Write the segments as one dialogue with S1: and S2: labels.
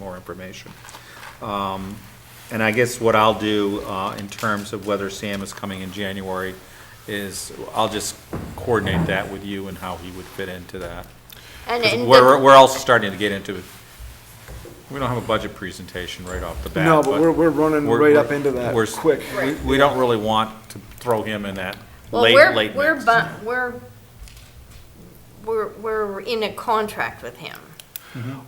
S1: more information. Um, And I guess what I'll do uh, in terms of whether Sam is coming in January is I'll just coordinate that with you and how he would fit into that.
S2: And,
S1: 'Cause
S2: and
S1: We're,
S2: the-
S1: we're also starting to get into, we don't have a budget presentation right off the bat.
S3: No, but we're, we're running
S1: we're-
S3: right
S1: we're-
S3: up into that
S1: we're-
S3: quick.
S1: We, we don't really want to throw him in that
S2: well,
S1: late,
S2: we're,
S1: late
S2: we're,
S1: mix.
S2: bu- we're, we're, we're in a contract with him.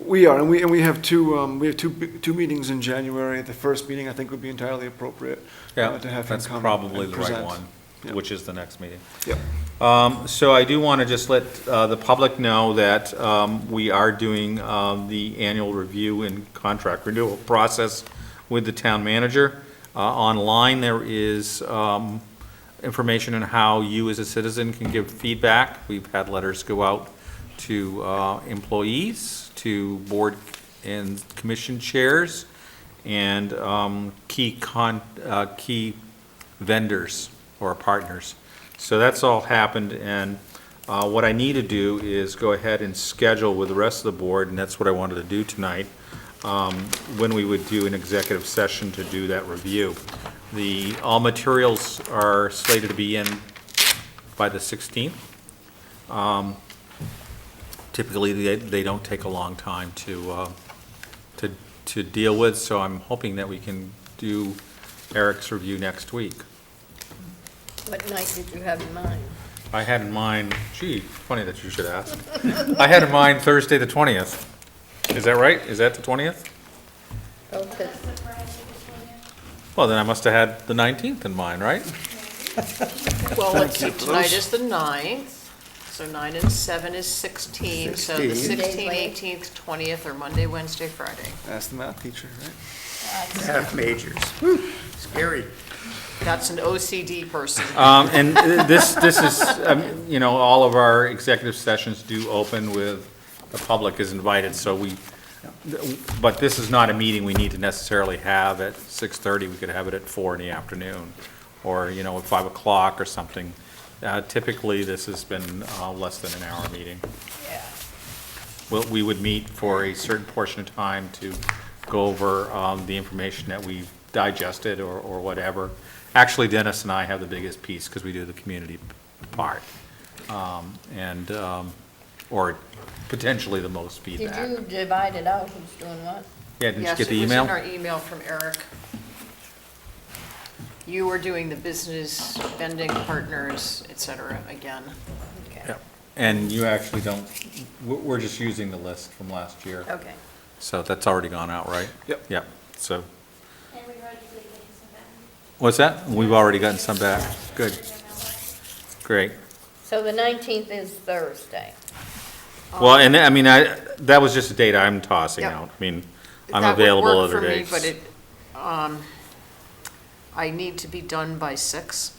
S3: We are, and we, and we have two, um, we have two, b- two meetings in January. The first meeting, I think, would be entirely appropriate.
S1: Yeah,
S3: uh, to have him
S1: that's
S3: come
S1: probably
S3: and
S1: the right
S3: present.
S1: one,
S3: Yeah.
S1: which is the next meeting.
S3: Yep.
S1: Um, So I do want to just let uh, the public know that um, we are doing um, the annual review and contract renewal process with the town manager. Uh, Online, there is um, information on how you as a citizen can give feedback. We've had letters go out to uh, employees, to board and commission chairs, and um, key con, uh, key vendors or partners. So that's all happened, and uh, what I need to do is go ahead and schedule with the rest of the board, and that's what I wanted to do tonight, um, when we would do an executive session to do that review. The, all materials are slated to be in by the 16th. Um, Typically, they, they don't take a long time to, uh, to, to deal with, so I'm hoping that we can do Eric's review next week.
S2: What night did you have in mind?
S1: I had in mind, gee, funny that you should ask. I had in mind Thursday, the 20th. Is that right? Is that the 20th?
S2: Oh,
S1: Well, then I must have had the 19th in mind, right?
S4: Well, let's see, tonight is the ninth, so nine and seven is 16, so the
S3: 16.
S4: 16th,
S2: Days
S4: 18th, 20th are Monday, Wednesday, Friday.
S3: Ask the math teacher, right?
S5: Half majors. Scary.
S4: That's an OCD person.
S1: Um, and uh, this, this is, um, you know, all of our executive sessions do open with, the public is invited, so we, but this is not a meeting we need to necessarily have at 6:30. We could have it at four in the afternoon, or, you know, at 5 o'clock or something. Uh, Typically, this has been uh, less than an hour meeting. Well, we would meet for a certain portion of time to go over um, the information that we've digested or, or whatever. Actually, Dennis and I have the biggest piece because we do the community part. um, And, um, or potentially the most feedback.
S2: divide it out, who's doing what?
S1: Yeah, did you get the
S4: Yes, it was
S1: email?
S4: in our email from Eric. You were doing the business vending partners, et cetera, again.
S2: Okay,
S1: Yeah. And you actually don't, we're, we're just using the list from last year.
S2: okay.
S1: So that's already gone out, right?
S3: Yep.
S1: Yep, so,
S6: And we've already taken some back.
S1: what's that? We've already gotten some back. Good, great.
S2: So the nineteenth is Thursday.
S1: Well, and I mean, I, that was just a date I'm tossing
S4: Um, Yep.
S1: out. I mean, I'm
S4: That would
S1: available
S4: work
S1: other
S4: for me,
S1: days.
S4: But it, um, I need to be done by six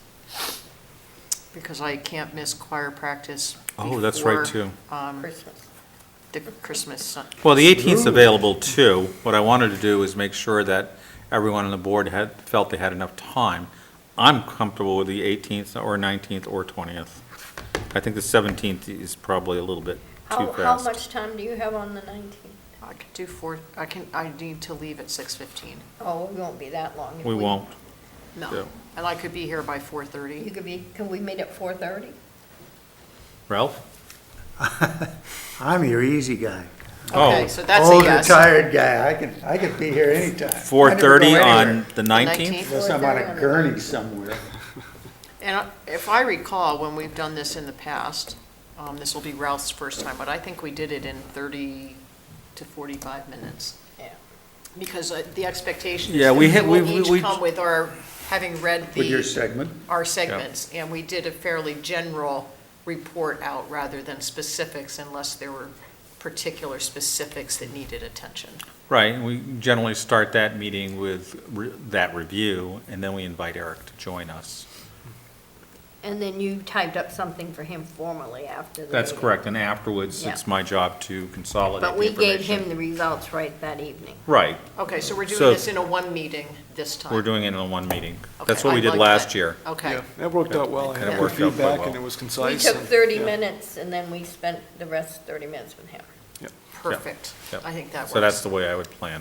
S4: because I can't miss choir practice.
S1: Oh, that's right, too.
S4: before, um,
S2: Christmas.
S4: The Christmas, sun-
S1: Well, the 18th's available too. What I wanted to do is make sure that everyone on the board had, felt they had enough time. I'm comfortable with the 18th or 19th or 20th. I think the 17th is probably a little bit too
S2: How, how
S1: fast.
S2: much time do you have on the nineteenth?
S4: I could do four, I can, I need to leave at six fifteen.
S2: Oh, we won't be that long. if
S1: We won't. Yeah.
S4: No, and I could be here by four
S2: You
S4: thirty.
S2: could be, can we meet at four thirty?
S1: Ralph?
S5: I'm your easy guy.
S1: Oh,
S4: Okay, so that's a
S5: Old
S4: yes.
S5: retired guy. I can, I can be here anytime. I never go
S1: 4:30
S5: anywhere.
S1: on the 19th?
S4: 19th?
S5: Unless I'm on a gurney somewhere.
S4: And I- if I recall, when we've done this in the past, um, this will be Ralph's first time, but I think we did it in thirty to forty-five minutes.
S2: Yeah.
S4: Because uh, the expectation is
S1: Yeah,
S4: that
S1: we
S4: we
S1: had-
S4: will
S1: we- we- we-
S4: each come with our, having read
S5: With your
S4: the,
S5: segment,
S4: our segments. And we did a fairly general report out rather than specifics unless there were particular specifics that needed attention.
S1: Right, and we generally start that meeting with re- that review, and then we invite Eric to join us.
S2: And then you typed up something for him formally after the.
S1: That's
S2: meeting.
S1: correct, and afterwards, it's
S2: Yeah.
S1: my job to consolidate the
S2: But we gave
S1: information.
S2: him the results right that evening.
S1: Right,
S4: Okay, so we're doing
S1: So-
S4: this in a one meeting this time.
S1: we're doing it in one meeting. That's
S4: Okay,
S1: what we
S4: I
S1: did
S4: like
S1: last
S4: that.
S1: year.
S4: Okay.
S3: Yeah, That worked out well. I
S1: Kinda
S3: had good
S1: worked out quite
S3: feedback
S1: well.
S3: and it was concise.
S2: We took
S3: and-
S2: 30
S3: yeah.
S2: minutes, and then we spent the rest 30 minutes with him.
S4: Perfect.
S1: Yep.
S4: I think that works.
S1: So that's the way I would plan.